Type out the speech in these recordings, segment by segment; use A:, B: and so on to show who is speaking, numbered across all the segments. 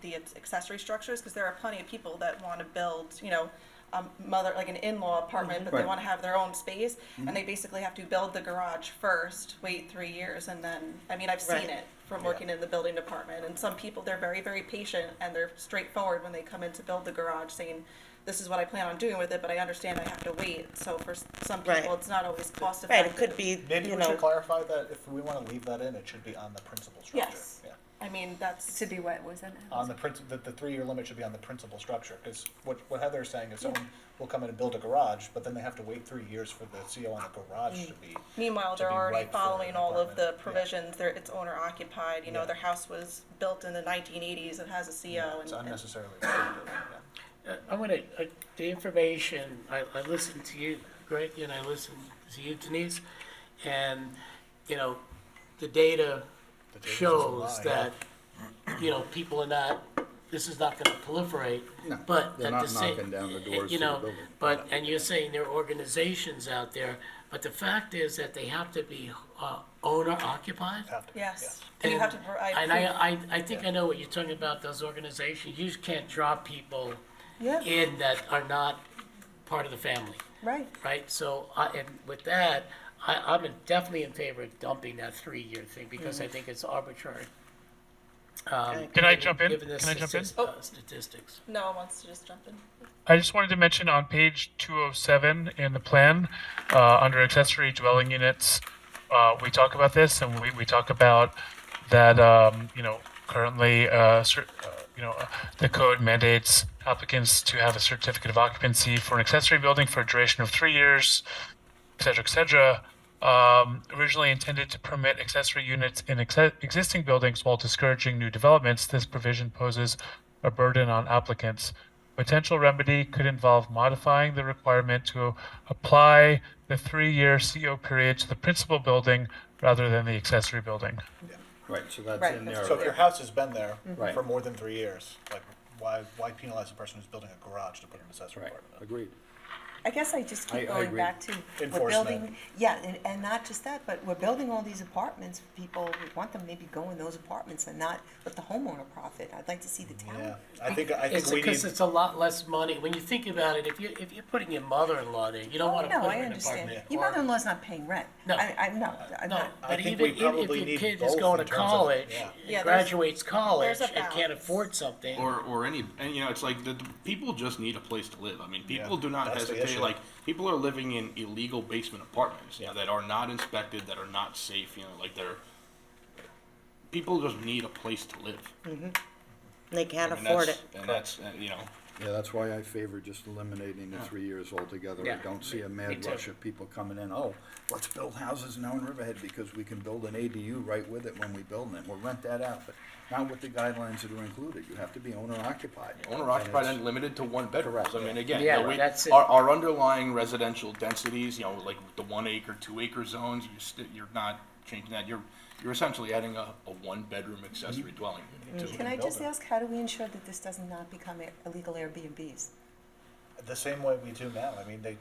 A: the accessory structures, because there are plenty of people that want to build, you know, a mother, like an in-law apartment, but they
B: Right.
A: want to have their own space, and they
C: Mm-hmm.
A: basically have to build the garage first, wait three years, and then, I mean, I've seen
C: Right.
A: it from working in the building department, and some people, they're very, very patient, and they're straightforward when they come in to build the garage, saying, this is what I plan on doing with it, but I understand I have to wait, so for s- some
C: Right.
A: people, it's not always cost
C: Right,
A: effective.
C: it could be,
D: Maybe
C: you
D: we should
C: know,
D: clarify that if we want to leave that in, it should be on the principal structure.
A: Yes.
D: Yeah.
A: I mean, that's,
E: To be what was it?
D: On the princi- that the three-year limit should be on the principal structure, because what, what Heather is saying is someone will come in and build a garage, but then they have to wait three years for the CO on the garage to
A: Mm.
D: be.
A: meanwhile,
D: to
A: they're
D: be
A: already
D: right for an
A: following all of the
D: apartment. Yeah.
A: provisions, they're, it's owner occupied, you know,
D: Yeah.
A: their house was built in the nineteen eighties, it has a CO,
D: It's
A: and- and
D: unnecessarily. restrictive, yeah.
F: Uh, I want to, the information, I, I listened to you, Greg, and I listened to you, Denise, and, you know, the data
D: The data's
F: shows
D: online.
F: that, you know, people are not, this is not going to proliferate,
B: No,
F: but.
B: they're
F: at
B: not
F: the same-
B: knocking down the
F: uh,
B: doors
F: You
B: to the
F: know,
B: building.
F: but, and you're saying there are organizations out there, but the fact is that they have to be uh, owner occupied?
D: Have to,
A: Yes,
D: yeah.
A: and you have to provide.
F: And I,
A: proof.
F: I, I think I know what you're talking about, those organizations, you just can't draw people
A: Yeah.
F: in that are not part of the family,
A: Right.
F: right? So, I, and with that, I, I'm in- definitely in favor of dumping that three-year thing, because
A: Mm-hmm.
F: I think it's arbitrary. Um,
G: Can I jump in?
F: Given the
G: Can I jump in?
F: statis-
A: Oh.
F: uh, statistics.
A: No one wants to just jump in.
G: I just wanted to mention on page 207 in the plan, uh, under accessory dwelling units, uh, we talk about this and we, we talk about that, um, you know, currently, uh, cer- uh, you know, uh, the code mandates applicants to have a certificate of occupancy for an accessory building for a duration of three years, et cetera, et cetera. Um, originally intended to permit accessory units in ex- existing buildings while discouraging new developments, this provision poses a burden on applicants. Potential remedy could involve modifying the requirement to apply the three-year CO period to the principal building rather than the accessory building.
B: Right, so that's
A: Right,
B: in
A: that's
B: there.
D: So if your house has been there
A: Mm-hmm.
B: Right.
D: for more than three years, like, why, why penalize the person who's building a garage to put an accessory
B: Right,
D: apartment? in?
B: agreed.
E: I guess I just
B: I- I
E: keep going
B: agree.
E: back to, we're
D: Enforcement.
E: building, yeah, and, and not just that, but we're building all these apartments for people, we want them to maybe go in those apartments and not let the homeowner profit. I'd like to see the
D: Yeah,
E: town.
D: I think, I think
F: It's
D: we need,
F: because it's a lot less money, when you think about it, if you, if you're putting your mother-in-law there, you don't
E: Oh,
F: want to
E: no,
F: put
E: I
F: her in an
E: understand.
F: apartment.
E: Your
F: or-
E: mother-in-law's not paying rent.
F: No.
E: I, I, no, I'm
F: No,
E: not.
F: but
D: think
F: even
D: we
F: if if
D: probably
F: your
D: need
F: kid
D: both
F: is
D: in
F: going to
D: terms of-
F: college,
D: yeah.
A: Yeah, there's-
F: graduates college,
A: a
F: and can't
A: balance.
F: afford something.
H: or or any and you know it's like the, the people just need a place to live i mean people
D: Yeah,
H: do not
D: that's the
H: hesitate
D: issue.
H: like people are living in illegal basement apartments you know that are not inspected that are not safe you know like they're people just need a place to live
D: Mm-hmm.
C: they can't
H: and
C: afford it.
H: that's, and that's uh, you know
B: Yeah, that's why I favor just eliminating the three years altogether. I
F: Yeah.
B: don't see a
F: Me
B: mad
F: too.
B: rush of people coming in, oh, let's build houses now in Riverhead because we can build an ADU right with it when we build them. We'll rent that out, but not with the guidelines that are included. You have to be owner occupied.
H: owner occupied and limited to one bedrooms. I mean, again, you
F: Yeah,
H: know, we-
F: that's it.
H: our, our underlying residential densities, you know, like the one acre, two acre zones, you st- you're not changing that. You're, you're essentially adding a, a one bedroom accessory
D: Mm-hmm.
H: dwelling unit to it.
E: Can I just ask, how do we ensure that this does not become a- illegal Airbnbs?
D: the same way we do now, I mean, they,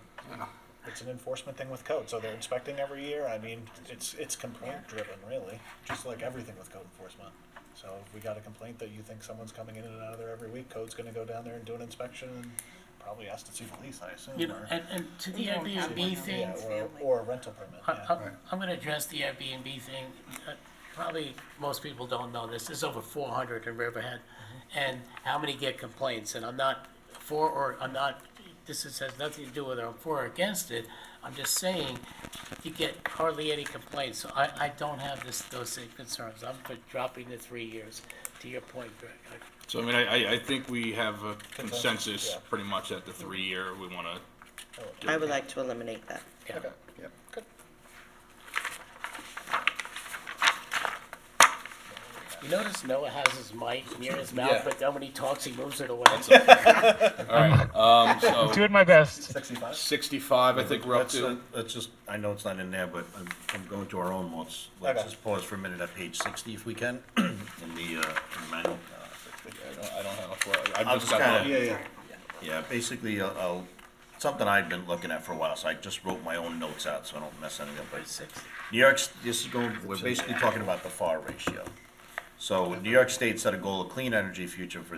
D: it's an enforcement thing with code, so they're inspecting every year, I mean, it's, it's complaint driven, really, just like everything with code enforcement. So if we got a complaint that you think someone's coming in and out of there every week, code's gonna go down there and do an inspection, and probably ask to see the lease, I assume,
F: You know,
D: or,
F: and, and to the
E: We don't have
F: Airbnb
E: one.
F: thing,
D: yeah,
E: it's
D: or,
E: family.
D: or a rental permit,
F: I,
D: yeah.
F: I'm, I'm gonna address the Airbnb thing. Uh, Probably most people don't know this. There's over four hundred in Riverhead. And how many get complaints? And I'm not for or I'm not, this is, has nothing to do with I'm for or against it. I'm just saying, you get hardly any complaints. So I, I don't have this, those same concerns. I'm for dropping the three years, to your point, Greg. I-
H: So, I mean, I, I, I think we have a
D: Consensus,
H: consensus
D: yeah.
H: pretty much at the three year, we want to.
C: I would like to eliminate that.
F: Yeah.
B: Yep.
F: You notice Noah has his mic near his mouth,
H: Yeah.
F: but then when he talks, he moves it away.
H: All right, um, so
G: Doing my best.
D: Sixty-five?
H: sixty-five, I think we're up
I: Let's, uh,
H: to.
I: Let's just, I know it's not in there, but I'm, I'm going to our own ones. Let's
D: Okay.
I: just pause for a minute at page sixty if we can, in the, uh, in the manual.
H: I don't, I don't have a, flow. I've
I: I'll
H: just
I: just
H: got
I: kinda.
H: the-
I: Yeah, basically, I'll- I'll, something I've been looking at for a while, so I just wrote my own notes out, so I don't mess anything up. But New York's, this is going, we're basically talking about the FAR ratio. So New York State set a goal of clean energy future for